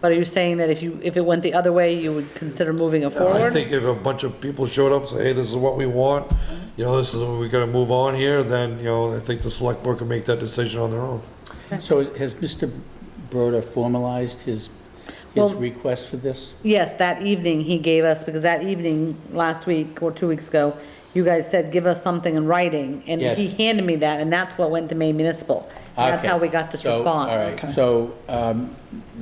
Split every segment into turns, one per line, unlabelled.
But are you saying that if you, if it went the other way, you would consider moving it
I
forward?
think if a bunch of people showed up, say, hey, this is what we want, you know, this is, we're gonna move on here, then, you know, I think the select board can make that decision on their own.
So has Mr. Broda formalized his, his
Well-
request for this?
Yes, that evening he gave us, because that evening, last week or two weeks ago, you guys said, give us something in writing, and
Yes.
he handed me that, and that's what went to Maine Municipal. And That's
Okay.
how we got this
So,
response.
All right, so um,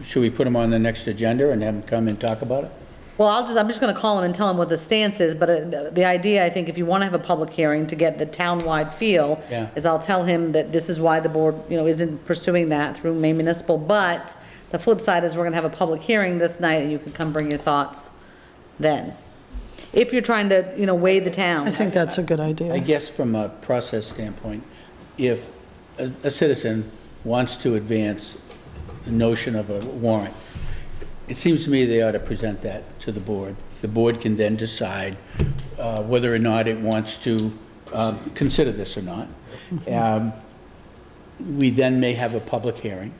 should we put him on the next agenda and have him come and talk about it?
Well, I'll just, I'm just gonna call him and tell him what the stance is, but uh, the- the idea, I think, if you wanna have a public hearing to get the town-wide feel,
Yeah.
is I'll tell him that this is why the board, you know, isn't pursuing that through Maine Municipal, but the flip side is we're gonna have a public hearing this night, and you can come bring your thoughts then. If you're trying to, you know, weigh the town.
I think that's a good
I
idea.
guess from a process standpoint, if a a citizen wants to advance the notion of a warrant, it seems to me they ought to present that to the board. The board can then decide uh, whether or not it wants to um, consider this or not. Um, We then may have a public hearing,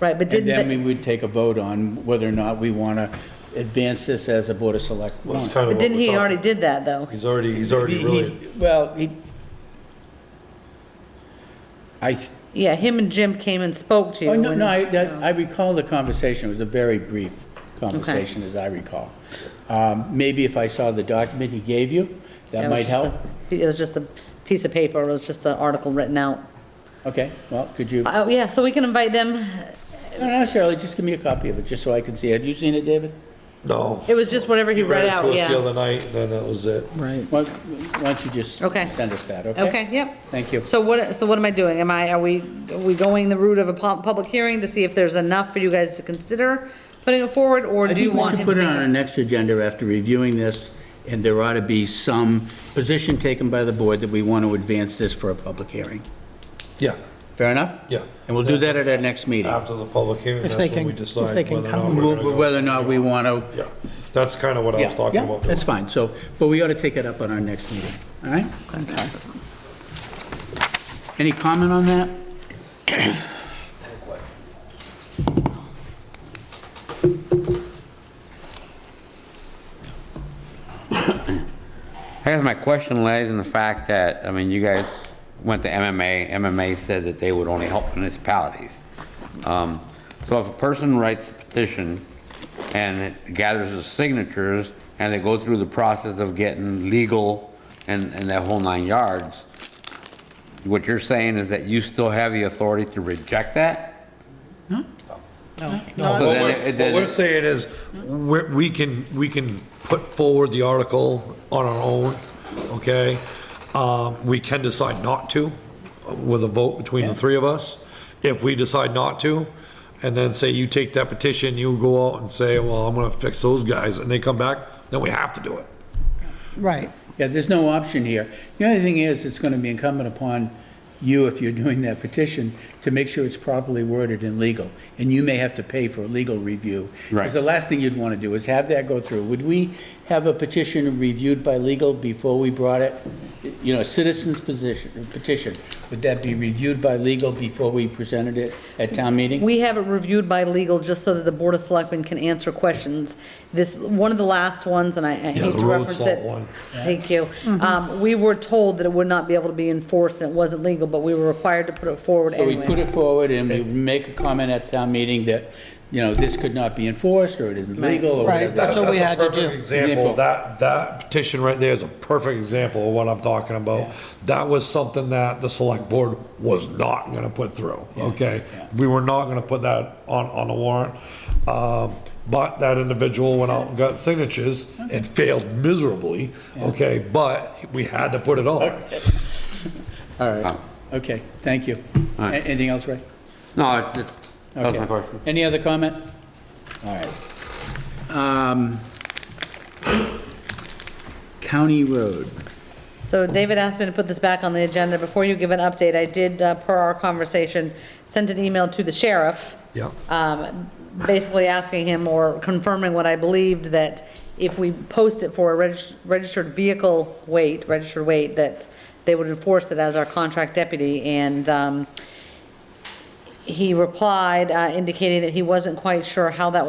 Right, but
and then we
didn't,
would take a vote on whether or not we want to advance this as a board of select.
Well, That's kind
warrant.
the- but
of what
didn't
we're
he
talking-
already did that, though?
He's already, he's already
He-
really,
he- Well, he, I, th-
Yeah, him and Jim came and spoke to you.
oh, no,
and-
no, I, that- I recall the conversation, it was a very brief conversation, as I recall. Um, Maybe if I saw the document he gave you,
Yeah,
that
it was
might
just a-
help.
It was just a piece of paper, it was just the article written out.
Okay, well, could you,
Oh, yeah, so we can invite them,
not necessarily, just give me a copy of it, just so I can see. Have you seen it, David?
no.
It was just whatever he read
it to
out,
us The
yeah.
other night, and then that was it.
Right.
Why why don't you just
Okay.
send us that, okay?
Okay, yep.
Thank you.
So what, so what am I doing? Am I, are we, are we going the route of a pub- public hearing to see if there's enough for you guys to consider putting it forward, or
I
do you
think we
want
should
him to
put it
make
on our
a-
next agenda after reviewing this, and there ought to be some position taken by the board that we want to advance this for a public hearing.
Yeah,
Fair enough?
Yeah.
And we'll do that at our next meeting,
after the public hearing,
If
that's
they
when we
can- if
decide
they can
whether or
come.
not we're gonna go.
whether or not we want to.
Yeah, that's kind of what I was talking about.
That's fine, so, but we ought to take it up on our next meeting, all right?
Okay.
Any comment on that?
I guess my question lies in the fact that, I mean, you guys went to MMA, MMA said that they would only help municipalities. Um, So if a person writes a petition and it gathers the signatures and they go through the process of getting legal and, and that whole nine yards, what you're saying is that you still have the authority to reject that?
No,
So
what
then
we're-
it- then
What we're
it-
saying is, we're, we can, we can put forward the article on our own, okay? Um, we can decide not to, uh, with a vote between the three of us, if we decide not to. And then say you take that petition, you go out and say, well, I'm gonna fix those guys, and they come back, then we have to do it.
Right.
Yeah, there's no option here. The only thing is, it's going to be incumbent upon you, if you're doing that petition, to make sure it's properly worded and legal, and you may have to pay for legal review.
Right.
Because the last thing you'd want to do is have that go through. Would we have a petition reviewed by legal before we brought it? You know, a citizen's position, petition, would that be reviewed by legal before we presented it at town meeting?
We have it reviewed by legal just so that the Board of Selectmen can answer questions. This, one of the last ones, and I I hate to
the road
reference
salt
it.
one.
Thank you.
Mm-hmm.
Um, we were told that it would not be able to be enforced and it wasn't legal, but we were required to put it forward
So we
anyway.
put it forward and we make a comment at town meeting that, you know, this could not be enforced, or it isn't legal, or
Right.
whatever.
That's what we
a
had to
perfect
do.
Example, that, that petition right there is a perfect example of what I'm talking about. That was something that the select board was not gonna put through, okay? We were not gonna put that on, on the warrant. Um, but that individual went out and got signatures and failed miserably, okay? But we had to put it on.
All right, okay, thank you. A-
right.
Anything else, Ray?
No, it- it- that was
Okay.
my question.
Any other comment? All right. Um, County Road.
So David asked me to put this back on the agenda. Before you give an update, I did, uh, per our conversation, send an email to the sheriff.
Yeah.
um, Basically asking him or confirming what I believed, that if we post it for a reg- registered vehicle weight, registered weight, that they would enforce it as our contract deputy. And um, he replied uh, indicating that he wasn't quite sure how that